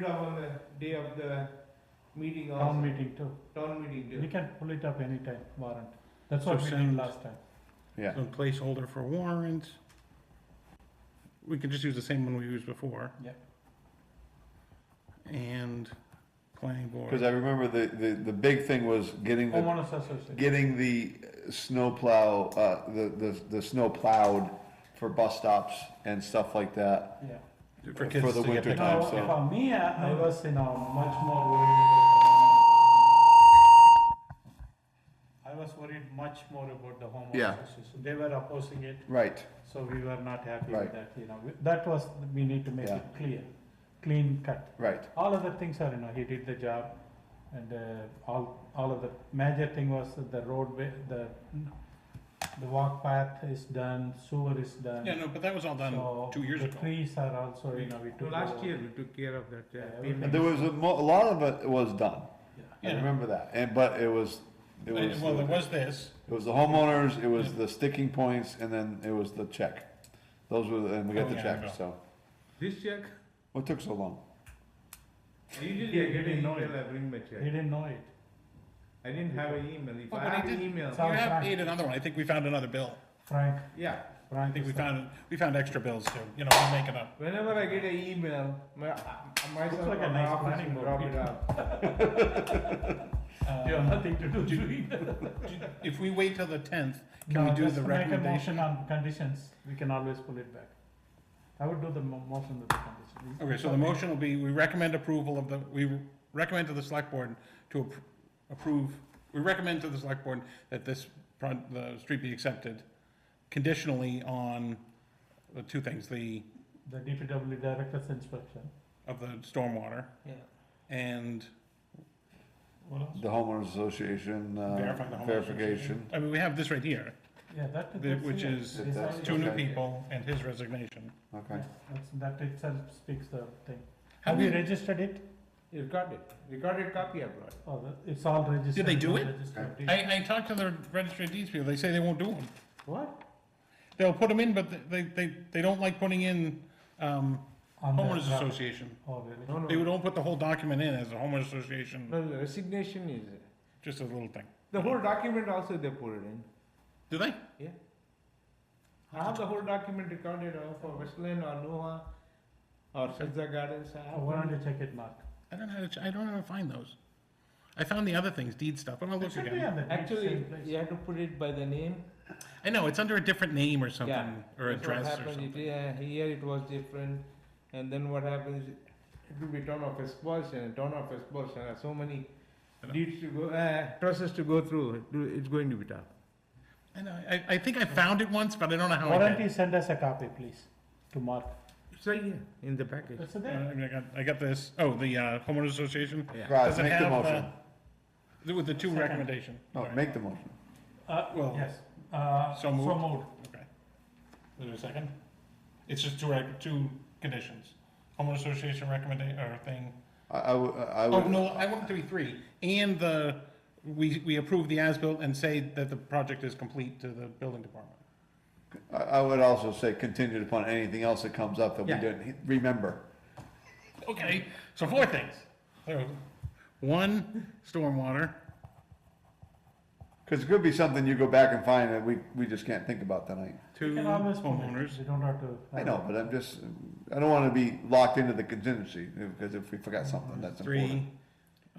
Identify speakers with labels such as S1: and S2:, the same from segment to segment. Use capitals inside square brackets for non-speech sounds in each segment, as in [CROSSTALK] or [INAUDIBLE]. S1: it up on the day of the meeting also.
S2: Town meeting too.
S1: Town meeting
S2: We
S1: day.
S2: can pull it up anytime, warrant. That's
S3: So
S2: what we did
S3: send-
S2: last time.
S4: yeah.
S3: Some placeholder for warrant. We could just use the same one we used before.
S2: Yeah.
S3: And planning
S4: Because
S3: board.
S4: I remember the, the, the big thing was getting the,
S2: Homeowners association.
S4: getting the uh, snowplow, uh, the, the, the snow plowed for bus stops and stuff like that.
S2: Yeah.
S3: For
S4: for
S3: kids
S4: the
S3: to get
S4: winter
S3: their
S4: time.
S2: Now,
S4: so-
S2: for me, I I was, you know, much more worried. about- I was worried much more about the
S4: Yeah.
S2: homeowners association. They were opposing it,
S4: Right,
S2: so we were not happy
S4: Right.
S2: with that, you know. We- That was, we need to make
S4: Yeah.
S2: it clear, clean cut.
S4: right.
S2: all other things are, you know, he did the job and uh, all, all of the major thing was that the roadway, the, the walk path is done, sewer is done.
S3: Yeah, no, but that was all
S2: So
S3: done two years
S2: the
S3: ago.
S2: trees are also, you know, we took.
S1: So last
S2: over.
S1: year we took care of that.
S2: Yeah,
S1: Yeah.
S2: everything.
S4: And there was a, mo- a lot of it was done. I
S3: Yeah.
S4: remember that. And, but it was, it was,
S3: Well, there
S4: it
S3: was this,
S4: was the homeowners, it was the sticking points, and then it was the check. Those were, the- and we got the
S3: Oh, yeah, I
S4: check,
S3: know.
S4: so.
S1: This check,
S4: What took so long?
S1: [LAUGHS] usually I
S2: He
S1: get an
S2: didn't know
S1: email,
S2: it.
S1: I bring my
S2: He
S1: check.
S2: didn't know it.
S1: I didn't have an email. If
S3: Oh,
S1: I
S3: but I
S1: have an
S3: did-
S1: email,
S2: So-
S3: you have,
S2: Frank.
S3: need another one, I think we found another bill.
S2: Frank,
S1: yeah.
S2: Frank.
S3: I think we
S2: is the-
S3: found, we found extra bills too, you know, we make it up.
S1: Whenever I get an email, my, myself
S2: like
S1: or
S2: a
S1: my
S2: nice
S1: office
S2: planning
S1: will
S2: board
S1: drop it
S2: meeting.
S1: up.
S2: Uh,
S3: You have
S2: nothing to do, [LAUGHS]
S3: If we wait till the tenth, can we do the recommendation?
S2: on conditions, we can always pull it back. I would do the mo- motion with the condition.
S3: Okay, so the motion will be, we recommend approval of the, we recommend to the select board to appro- approve, we recommend to the select board that this, pro- the street be accepted conditionally on the two things, the,
S2: The DPW director's inspection.
S3: of the stormwater
S2: Yeah.
S3: and
S2: What else?
S4: The homeowners association,
S3: verify the
S4: uh,
S3: homeowners
S4: verification.
S3: association. I mean, we have this right here,
S2: Yeah, that.
S3: The-
S2: that's
S3: which
S2: here.
S3: is
S2: This
S4: That's
S2: is-
S3: two new
S4: Okay.
S3: people and his resignation.
S4: Okay.
S2: Yeah, that's, that itself speaks the thing.
S3: How
S2: Have you
S3: we-
S2: registered it?
S1: Recorded, recorded copy I brought.
S2: Oh, the- it's all registered.
S3: they do
S2: no
S3: it?
S2: registered
S4: Okay.
S2: deed.
S3: I, I talked to the registry of deeds people, they say they won't do them.
S2: What?
S3: They'll put them in, but they, they, they don't like putting in, um,
S2: On the-
S3: homeowners association.
S2: Oh, really?
S1: No,
S3: They
S1: no,
S3: would all put the whole document in as a homeowners association,
S1: no, the resignation is,
S3: just a little thing.
S1: the whole document also they put it in.
S3: Do they?
S1: Yeah. I have the whole document recorded uh, for Westland or Noah or Shazza Gardens. I
S2: Oh,
S1: have
S2: Why
S1: one.
S2: don't you check it, Mark?
S3: I don't know how to, ch- I don't know how to find those. I found the other things, deed stuff, but I'll
S2: It
S3: look
S2: should be
S3: again.
S2: on the deed,
S1: Actually,
S2: same place.
S1: you have to put it by the name.
S3: I know, it's under a different name or
S1: Yeah.
S3: something, or
S1: That's what
S3: address or
S1: happened. It-
S3: something.
S1: yeah, Here it was different, and then what happens, it will be town of expulsion, town of expulsion, uh, so many
S3: I know.
S1: deeds to go, uh, process to go through, It- it's going to be tough.
S3: I know, I, I think I found it once, but I don't know how
S2: Why
S3: I
S2: don't you
S3: did.
S2: send us a copy, please, to Mark?
S1: So, yeah, in the package,
S2: It's there.
S3: uh, I mean, I got, I got this, oh, the uh, homeowners association,
S1: yeah.
S4: Guys,
S3: Does it
S4: make the
S3: have, uh,
S4: motion.
S3: with the two
S2: Second.
S3: recommendation. All
S4: No,
S3: right.
S4: make the motion.
S2: Uh,
S3: Well,
S2: yes, uh,
S3: so
S2: so
S3: moved.
S2: moved.
S3: Okay. Is there a second? It's just two, rec- two conditions. Homeowner association recommendation, or thing,
S4: I, I would, I
S3: Oh,
S4: would,
S3: no, I want it to be three, and the, we, we approve the as-built and say that the project is complete to the building department.
S4: I, I would also say contingent upon anything else that comes up that we
S1: Yeah.
S4: didn't he- remember.
S3: Okay, so four things. There we go. One, stormwater,
S4: Cause it could be something you go back and find that we, we just can't think about tonight.
S3: two,
S2: You can always pull it.
S3: homeowners.
S2: You don't have to.
S4: I know, but I'm just, I don't wanna be locked into the contingency, because if we forgot something, that's
S3: Three,
S4: important.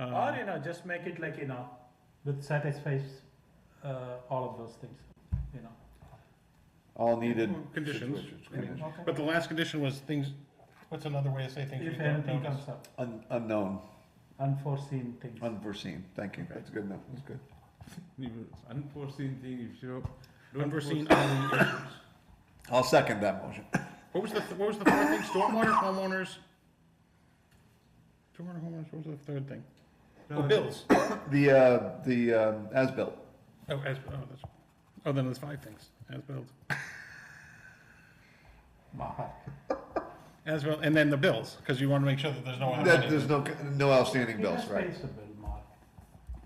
S2: Or,
S3: uh,
S2: you know, just make it like, you know, that satisfies, uh, all of those things, you know.
S4: All needed.
S3: Conditions.
S4: situations, conditions.
S3: but the last condition was things, what's another way to say things we
S2: If
S3: don't
S2: anything
S3: notice?
S2: comes up,
S4: Un- Unknown,
S2: unforeseen things.
S4: unforeseen, thank you, that's good enough, that's good.
S1: Unforeseen thing, if you don't.
S3: Unforeseen,
S1: foresee-
S4: I'll second that motion.
S3: what was the, what was the third thing? Stormwater, homeowners? Stormwater, homeowners, what was the third thing? Oh, [COUGHS] bills.
S4: The, uh, the, um, as-built,
S3: Oh, as, oh, that's, oh, then there's five things, as-built.
S2: Mark.
S3: As well, and then the bills, because you want to make sure that there's no other
S4: that,
S3: money.
S4: there's no, no outstanding
S2: It has
S4: bills, right?
S2: space to build, Mark.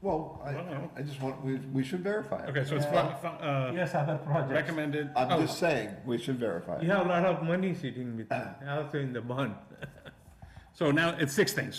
S4: Well,
S3: Well.
S4: I, I just want, we, we should verify it.
S3: Okay, so it's, fi-
S2: Yeah.
S3: fi- uh,
S2: Yes, other projects.
S3: recommended,
S4: I'm
S3: oh,
S4: just saying, we should verify
S1: You
S4: it.
S1: have a lot of money sitting with, you, also in the bond.
S3: So now it's six things.